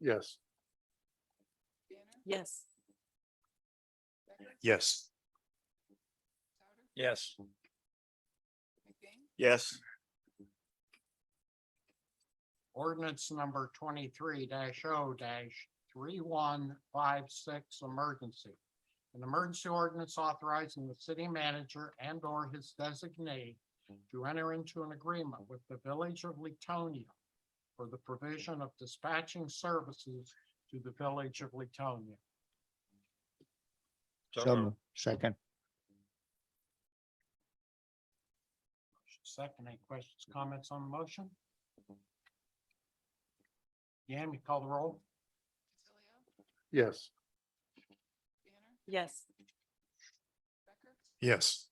Yes. Yes. Yes. Yes. Yes. Ordinance number twenty-three 0 three-one-five-six, emergency. An emergency ordinance authorizing the city manager and or his designee to enter into an agreement with the village of Letonia for the provision of dispatching services to the village of Letonia. So moved. Second, Second, any questions, comments on the motion? Yam, you call the roll? Yes. Yes. Yes.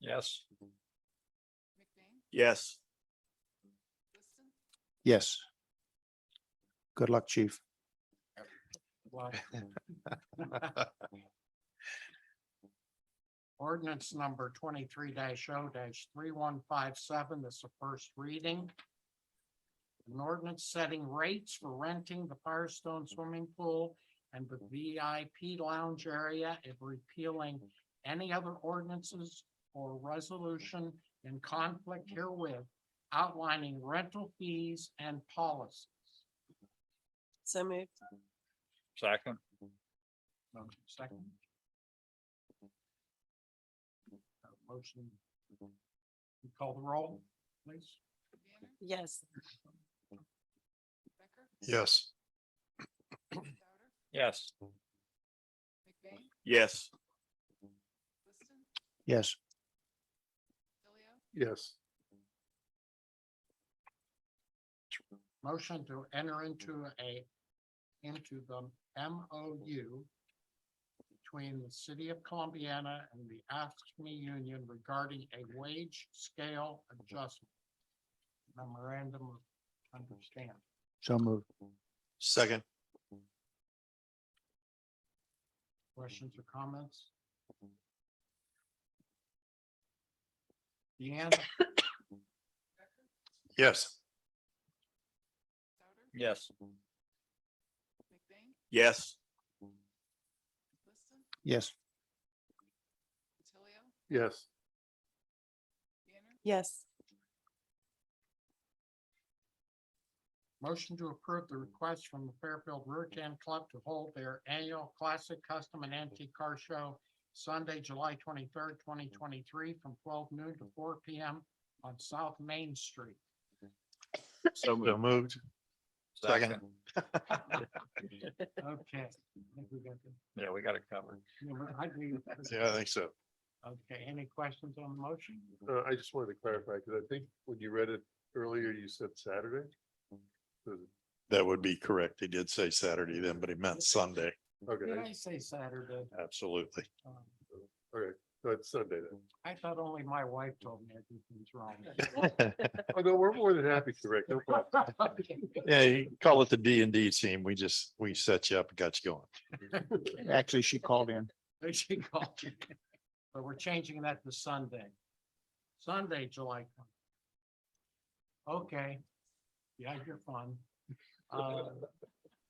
Yes. Yes. yes. Good luck, chief. Wow. Ordinance number twenty-three 0 three-one-five-seven, this is a first reading. An ordinance setting rates for renting the Firestone Swimming Pool and the VIP Lounge area and repealing any other ordinances or resolution in conflict herewith outlining rental fees and policies. So moved. Second. Motion second. Uh, Motion. You Call the roll, please. Yes. Yes. Yes. Yes. Yes, Yes. Motion to enter into a, into the MOU between the city of Columbiana and the AFSCME union regarding a wage scale adjustment. Memorandum of understanding. so moved. Second. Questions or comments? Deanne? Yes. Yes. Yes. Yes, Yes. Yes. Motion to approve the request from the Fairfield Rear Can Club to hold their annual classic custom and antique car show Sunday, July twenty-third, twenty twenty-three, from twelve noon to four P M on South Main Street. So moved. Second. Okay. I think we got the- Yeah, we got it covered. you know, I do- Yeah, I think so. Okay, any questions on the motion? Uh, I just wanted to clarify, because I think when you read it earlier, you said Saturday. That would be correct. He did say Saturday then, but he meant Sunday. Did Okay, I say Saturday? Absolutely. Um, so it's Sunday then. I thought only my wife told me everything's wrong. Oh, no, we're more than happy to correct. No problem. Yeah, you call it the D and D team. We just, we set you up and got you going. actually, she called in. There she called. But we're changing that to Sunday. Sunday, July. 20. Okay. Yeah, you're fun. Uh,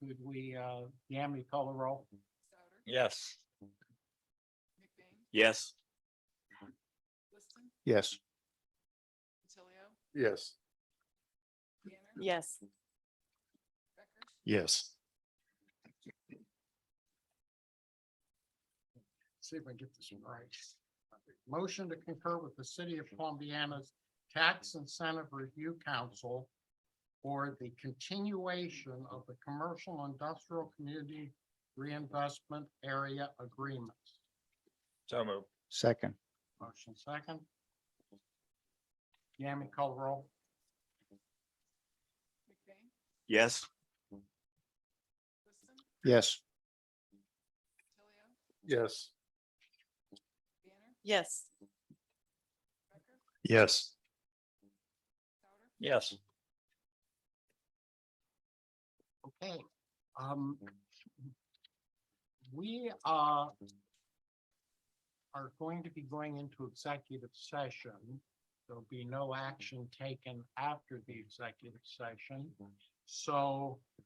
Could we, uh, Yam, you call the roll? Yes. Yes. Yes, Yes. Yes. Yes. See if I get this right. Motion to concur with the city of Columbiana's Tax Incentive Review Council for the continuation of the Commercial Industrial Community Reinvestment Area Agreements. So moved. second, Motion second. Yami, call roll. Yes. yes, Yes. Yes. Yes. Yes. Okay, um. We uh Are going to be going into executive session. There'll be no action taken after the executive session. So